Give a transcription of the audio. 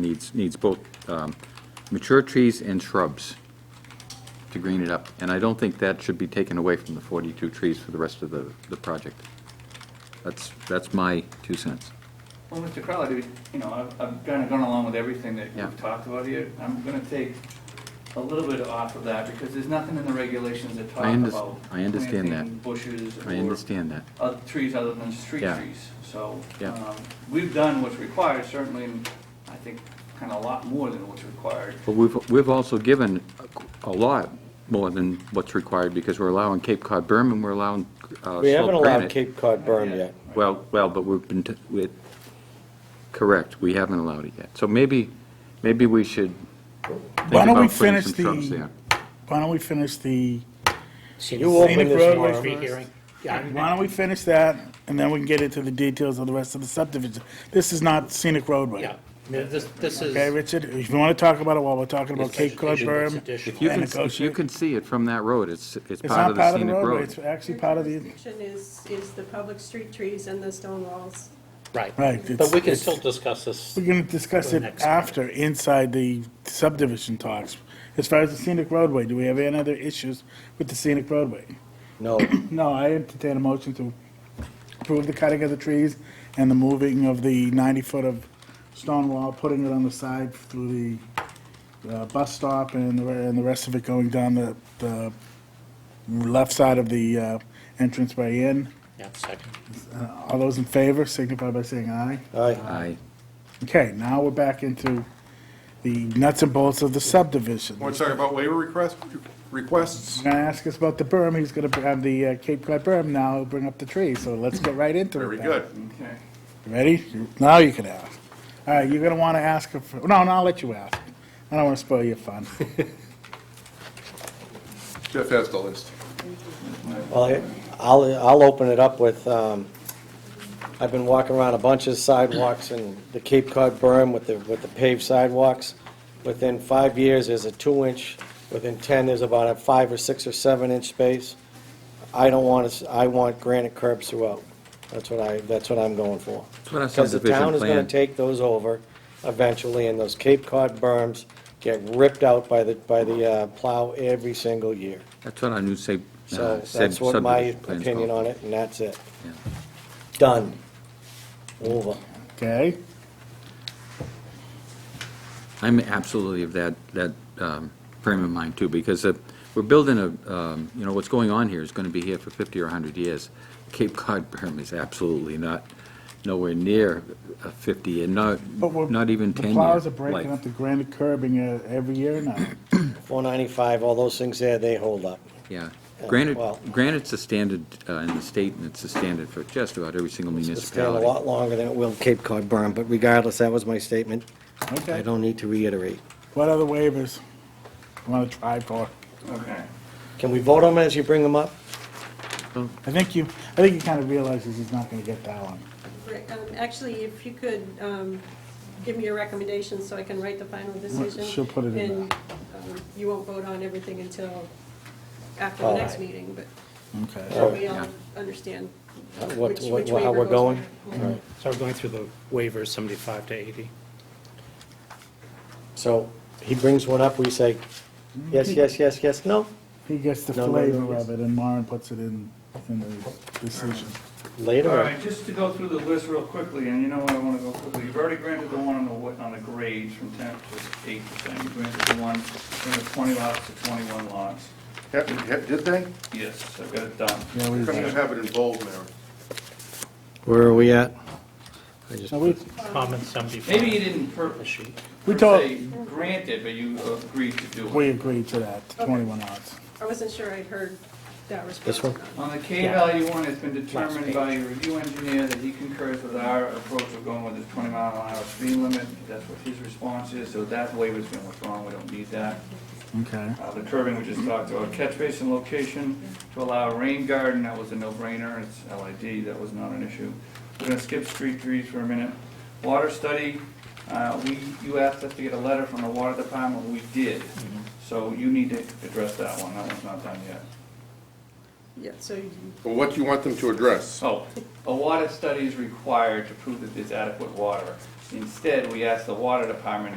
needs, needs both um, mature trees and shrubs to green it up. And I don't think that should be taken away from the 42 trees for the rest of the, the project. That's, that's my two cents. Well, Mr. Crowley, dude, you know, I've, I've kind of gone along with everything that Yeah. we've talked about here. I'm going to take a little bit off of that because there's nothing in the regulations that talk I unders- about I understand that. planting bushes I or understand that. other trees other than street Yeah. trees. So, Yeah. um, we've done what's required, certainly, and I think kind of a lot more than what's required. But we've, we've also given a lot more than what's required because we're allowing Cape Cod berm and we're allowing uh, We haven't salt allowed granite. Cape Cod berm yet. Well, well, but we've been, t- with, correct, we haven't allowed it yet. So maybe, maybe we should think Why don't we about putting finish some the, shrubs there. why don't we finish the, You open Scenic this roadway tomorrow. why don't we finish that, and then we can get into the details of the rest of the subdivision. This is not scenic roadway. Yeah, I mean, this, this is. Okay, Richard, if you want to talk about it while we're talking about it's Cape Cod vegetation, it's berm, additional. If you can, if you negotiate. can see it from that road, it's, it's it's part not of the part of the scenic roadway, it's road. actually part of the, jurisdiction is, is the public street trees and the stone walls. Right. right. But it's- we can it's- still discuss this. We're going to discuss For it the next after, inside the subdivision talks. As far as the scenic roadway, do we have any other issues with the scenic roadway? No, No, I entertain a motion to approve the cutting of the trees and the moving of the 90-foot of stone wall, putting it on the side through the uh, bus stop and the, re- and the rest of it going down the, the left side of the uh, entrance way in. Yeah, second. Uh, All those in favor signify by saying aye. aye. Aye. Okay, now we're back into the nuts and bolts of the subdivision. Want to talk about waiver request, requests? He's gonna ask us about the berm, he's gonna have the uh, Cape Cod berm now, bring up the tree, so let's get right into it. Very then. good. Okay. Ready? Now you can ask. All right, you're gonna wanna ask, her for- no, no, I'll let you ask. I don't wanna spoil your fun. Jeff has the list. Well, I'll, I'll open it up with, um, I've been walking around a bunch of sidewalks in the Cape Cod berm with the, with the paved sidewalks. Within five years, there's a two-inch, within 10, there's about a five or six or seven-inch space. I don't want to, I want granite curbs throughout. That's what I, that's what I'm going for. That's what our Because the town subdivision is gonna plan, take those over eventually, and those Cape Cod berms get ripped out by the, by the uh, plow every single year. that's what our new sub, So uh, sub- that's what my subdivision plan's opinion called. on it, and that's it. Yeah. Done. Over. Okay? I'm absolutely of that, that um, frame of mind too, because uh, we're building a, um, you know, what's going on here is going to be here for 50 or 100 years. Cape Cod berm is absolutely not, nowhere near a 50, and not, But we're- not even The 10 year plows are breaking life. up the granite curbing uh, every year now. 495, all those things there, they hold up. Yeah, Yeah, granite, well- granite's a standard uh, in the state, and it's a standard for just about every single It's staying a municipality. lot longer than it will Cape Cod berm, but regardless, that was my statement. I Okay. don't need to reiterate. What other waivers you wanna try for? Okay. Can we vote on them as you bring them up? I think you, I think he kinda realizes he's not gonna get that one. Right, um, Actually, if you could um, give me your recommendations so I can write the final decision. she'll put it in And um, you won't vote on everything until after the All next right. meeting, but Okay. so we all understand Uh, which what- which what- waiver how we're goes going? where. All right. So we're going through the waivers, 75 to 80. So he brings one up, we say, yes, yes, yes, yes, no? He gets the No, no, no, flavor yes. of it, and Warren puts it in, in the decision. All Later, right, just to go through the list real quickly, and you know what, I want to go quickly. You've already granted the one on the, wa- on the grades from 10 to 8 percent. You granted the one from the 20 lots to 21 lots. Have- have- Did they? Yes, I've got it done. Yeah, we- Couldn't you have it in bold, Mary? where are we at? I just Now, we, Comment 75. Maybe you didn't per, The sheet. We per told- se grant it, but you agreed to do it. we agreed to that, twenty-one odds. I wasn't sure I'd heard that response. This one? or not. On the K value one, it's been determined by your review engineer that he concurs with our approach of going with the 20 mile an hour speed limit. That's what his response is, so that waiver's been withdrawn, we don't need that. Okay. Uh, The curbing we just talked about, catch basin location to allow a rain garden, that was a no-brainer, it's LID, that was not an issue. We're gonna skip street trees for a minute. Water study, uh, we, you asked us to get a letter from the water department, we did. So you need to address that one, that one's not done yet. Yeah, so you- Well, what Oh, do you want them to address? So, a water study is required to prove that there's adequate water. Instead, we asked the water department